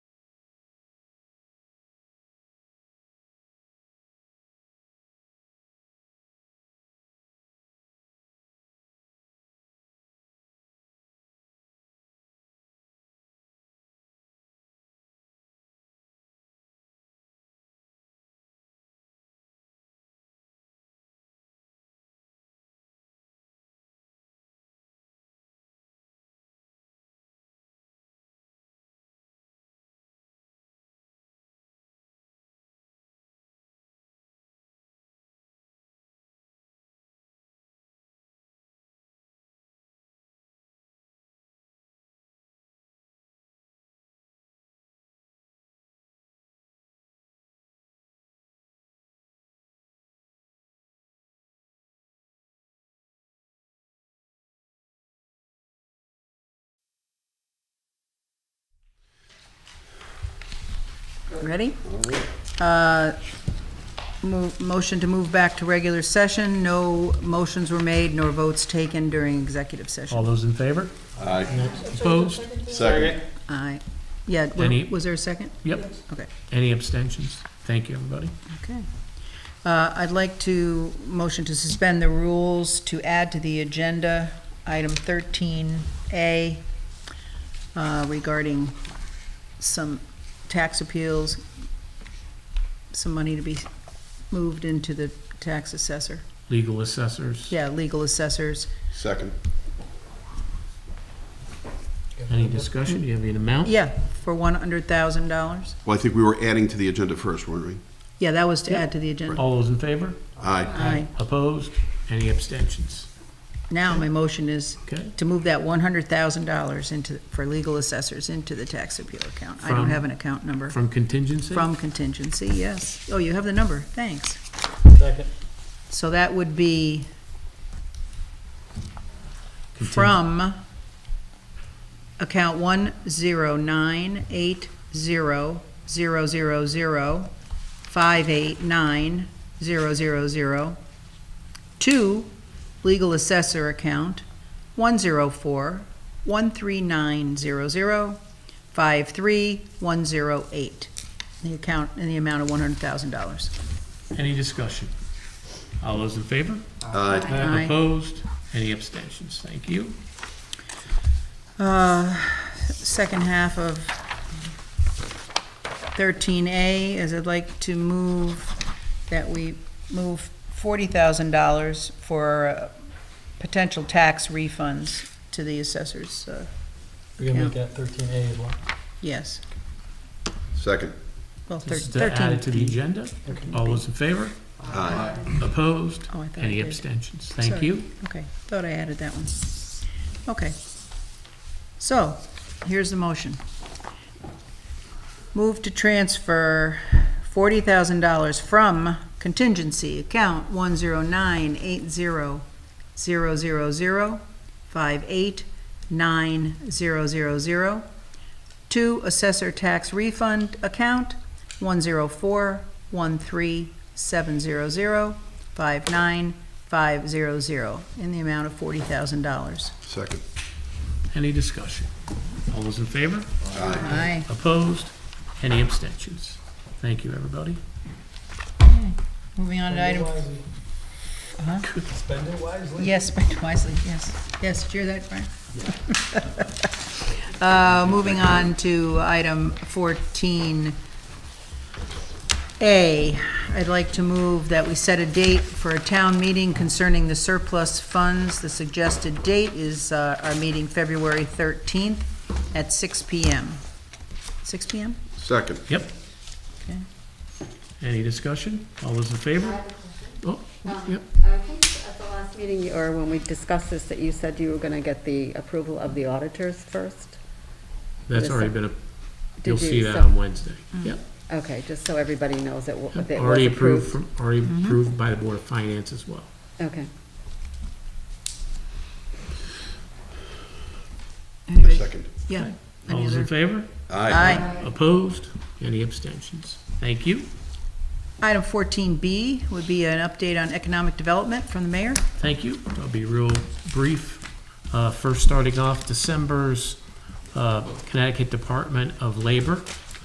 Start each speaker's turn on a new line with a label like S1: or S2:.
S1: Ready? Uh, mo- Motion to move back to regular session. No motions were made nor votes taken during executive
S2: All
S1: session.
S2: those in favor?
S3: Aye.
S2: Opposed?
S3: Second.
S1: Aye. Yeah, wa-
S2: Any-
S1: was there a second?
S2: Yep.
S1: Okay.
S2: Any abstentions? Thank you, everybody.
S1: Okay. Uh, I'd like to, motion to suspend the rules to add to the agenda, item 13A uh, regarding some tax appeals, some money to be moved into the tax assessor,
S2: Legal assessors,
S1: yeah, legal assessors.
S3: Second.
S2: any discussion? Do you have an amount?
S1: Yeah, for $100,000.
S3: Well, I think we were adding to the agenda first, weren't we?
S1: Yeah, that was to add to the agenda.
S2: All those in favor?
S3: Aye.
S1: Aye.
S2: Opposed? Any abstentions?
S1: Now, my motion is
S2: Okay.
S1: to move that one hundred thousand dollars into, for legal assessors into the tax appeal account. I don't
S2: From-
S1: have an account number.
S2: From contingency?
S1: From contingency, yes. Oh, you have the number, thanks.
S4: Second.
S1: So that would be
S2: Conting-
S1: from account one zero nine eight zero zero zero zero five eight nine zero zero zero to legal assessor account one zero four one three nine zero zero five three one zero eight. The account in the amount of one hundred thousand dollars.
S2: Any discussion? All those in favor?
S3: Aye.
S1: Aye.
S2: Opposed? Any abstentions? Thank you.
S1: Uh, Second half of 13A is I'd like to move that we move $40,000 for uh, potential tax refunds to the assessors, uh,
S4: We're gonna make that thirteen A as well.
S1: yes.
S3: Second.
S1: Well, thir-
S2: This is to add it to
S1: 13.
S2: the agenda. All those in favor?
S3: Aye.
S2: Opposed?
S1: Oh, I thought I
S2: Any
S1: did.
S2: abstentions? Thank
S1: Sorry.
S2: you.
S1: Okay, thought I added that one. Okay. So, here's the motion. Move to transfer forty thousand dollars from contingency account one zero nine eight zero zero zero zero five eight nine zero zero zero to assessor tax refund account one zero four one three seven zero zero five nine 500, in the amount of $40,000.
S3: Second.
S2: Any discussion? All those in favor?
S3: Aye.
S1: Aye.
S2: Opposed? Any abstentions? Thank you, everybody.
S1: Moving on to item,
S4: Spend it wisely.
S1: yes, spend wisely, yes. Yes, did you hear that, Brian? Uh, Moving on to item 14A. I'd like to move that we set a date for a town meeting concerning the surplus funds. The suggested date is uh, our meeting February 13th at 6 PM. 6 PM?
S3: Second.
S2: Yep.
S1: Okay.
S2: Any discussion? All those in favor? Oh, yep.
S5: Um, I think at the last meeting, you- or when we discussed this, that you said you were going to get the approval of the auditors first?
S2: That's already been, a. you'll
S5: Did you-
S2: see that
S5: so-
S2: on Wednesday. Yep.
S5: Okay, just so everybody knows that wa- that it was
S2: Already approved,
S5: approved. Mm-hmm.
S2: from already approved by the Board of Finance as well.
S5: Okay.
S1: Anybody?
S3: Second.
S1: Yeah.
S2: All
S1: Any
S2: those in
S1: other?
S2: favor?
S3: Aye.
S1: Aye.
S2: Opposed? Any abstentions? Thank you.
S1: Item 14B would be an update on economic development from the mayor.
S2: Thank you. I'll be real brief. Uh, First, starting off, December's uh, Connecticut Department of Labor